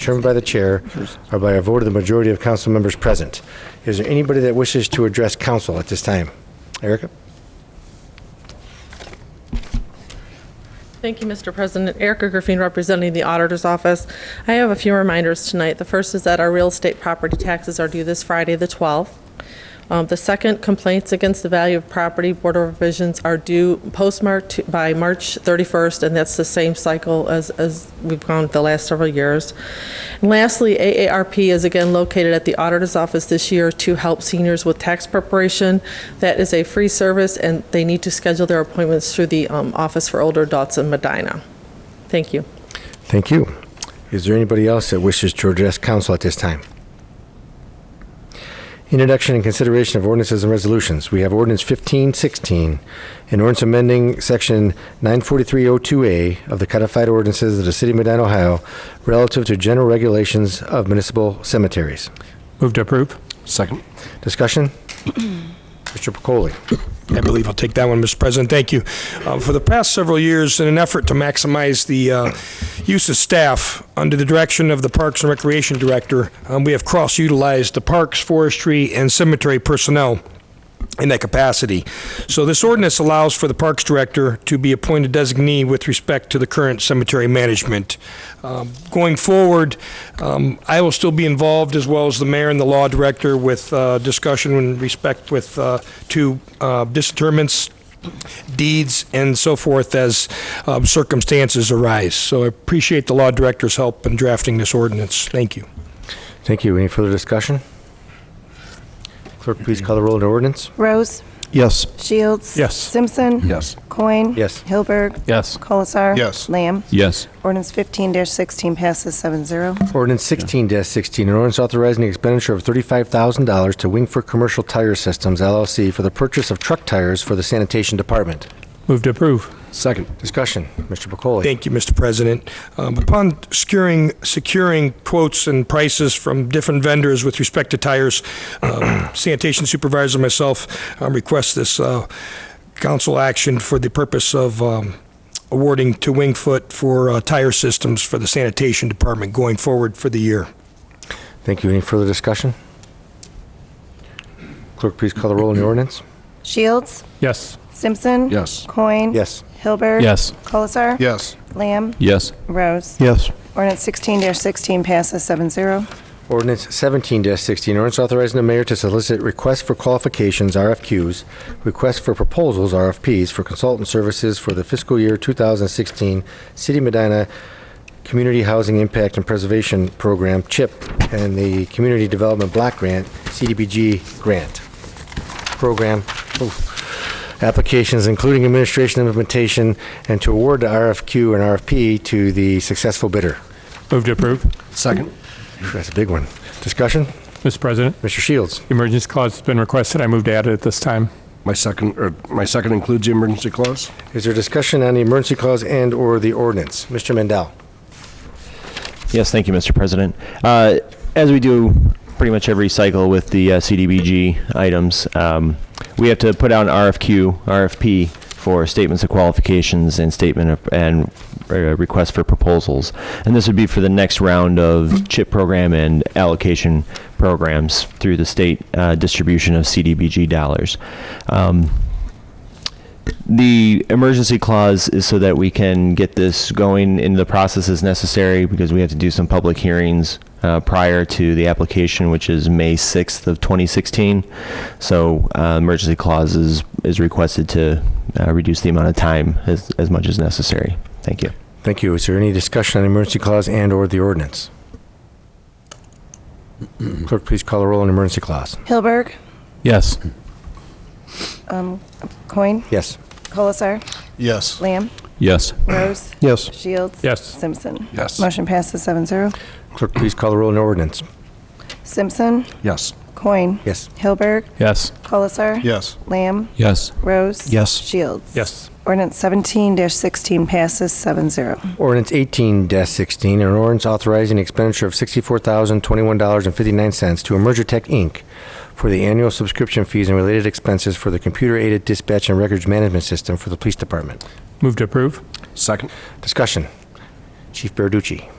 determined by the chair or by a vote of the majority of council members present. Is there anybody that wishes to address council at this time? Erica? Thank you, Mr. President. Erica Griffin, representing the Auditor's Office. I have a few reminders tonight. The first is that our real estate property taxes are due this Friday, the 12th. Um, The second, complaints against the value of property Board of Revisions are due postmarked to- by March 31st, and that's the same cycle as as we've gone the last several years. And Lastly, AARP is again located at the Auditor's Office this year to help seniors with tax preparation. That is a free service, and they need to schedule their appointments through the um, Office for Older Adults in Medina. Thank you. Thank you. Is there anybody else that wishes to address council at this time? Introduction and consideration of ordinances and resolutions. We have ordinance 1516, an ordinance amending section 94302A of the codified ordinances of the city of Medina, Ohio, relative to general regulations of municipal cemeteries. Move to approve. Second. Discussion? Mr. Pacoli? I believe I'll take that one, Mr. President. Thank you. Uh, For the past several years, in an effort to maximize the uh, use of staff under the direction of the Parks and Recreation Director, um, we have cross-utilized the parks, forestry, and cemetery personnel in that capacity. So this ordinance allows for the Parks Director to be appointed designee with respect to the current cemetery management. Um, Going forward, um, I will still be involved, as well as the mayor and the law director, with uh, discussion in respect with, uh, to uh, disinterments, deeds, and so forth as um, circumstances arise. So I appreciate the law director's help in drafting this ordinance. Thank you. Thank you. Any further discussion? Clerk, please call the roll on the ordinance. Rose. Yes. Shields. Yes. Simpson. Yes. Coin. Yes. Hilberg. Yes. Colasar. Yes. Lamb. Yes. Ordinance 15-16 passes 7-0. Ordinance 16-16, an ordinance authorizing the expenditure of $35,000 to Wingfoot Commercial Tire Systems LLC for the purchase of truck tires for the sanitation department. Move to approve. Second. Discussion, Mr. Pacoli. Thank you, Mr. President. Um, Upon securing, securing quotes and prices from different vendors with respect to tires, um, sanitation supervisor myself um, request this uh, council action for the purpose of um, awarding to Wingfoot for uh, tire systems for the sanitation department going forward for the year. Thank you. Any further discussion? Clerk, please call the roll on the ordinance. Shields. Yes. Simpson. Yes. Coin. Yes. Hilberg. Yes. Colasar. Yes. Lamb. Yes. Rose. Yes. Ordinance 16-16 passes 7-0. Ordinance 17-16, an ordinance authorizing the mayor to solicit requests for qualifications, RFQs, requests for proposals, RFPs, for consultant services for the fiscal year 2016 City of Medina Community Housing Impact and Preservation Program, CHIP, and the Community Development Block Grant, CDBG Grant Program. oof, Applications including administration implementation and to award the RFQ and RFP to the successful bidder. Move to approve. Second. That's a big one. Discussion? Mr. President, Mr. Shields? the emergency clause has been requested. I move to add it at this time. My second, or my second includes the emergency clause? Is there discussion on the emergency clause and/or the ordinance? Mr. Mendel? Yes, thank you, Mr. President. Uh, As we do pretty much every cycle with the uh, CDBG items, um, we have to put out an RFQ, RFP for statements of qualifications and statement of, and uh, request for proposals. And this would be for the next round of CHIP program and allocation programs through the state uh, distribution of CDBG dollars. Um, the emergency clause is so that we can get this going in the process as necessary because we have to do some public hearings uh, prior to the application, which is May 6th of 2016. So uh, emergency clause is, is requested to uh, reduce the amount of time as, as much as necessary. Thank you. Thank you. Is there any discussion on the emergency clause and/or the ordinance? Clerk, please call the roll on the emergency clause. Hilberg. Yes. Coin. Yes. Colasar. Yes. Lamb. Yes. Rose. Yes. Shields. Yes. Simpson. Yes. Motion passes 7-0. Clerk, please call the roll on the ordinance. Simpson. Yes. Coin. Yes. Hilberg. Yes. Colasar. Yes. Lamb. Yes. Rose. Yes. Shields. Yes. Ordinance 17-16 passes 7-0. Ordinance 18-16, an ordinance authorizing the expenditure of $64,021.59 to Emergitech, Inc. for the annual subscription fees and related expenses for the computer-aided dispatch and records management system for the police department. Move to approve. Second? Discussion. Chief Berducci.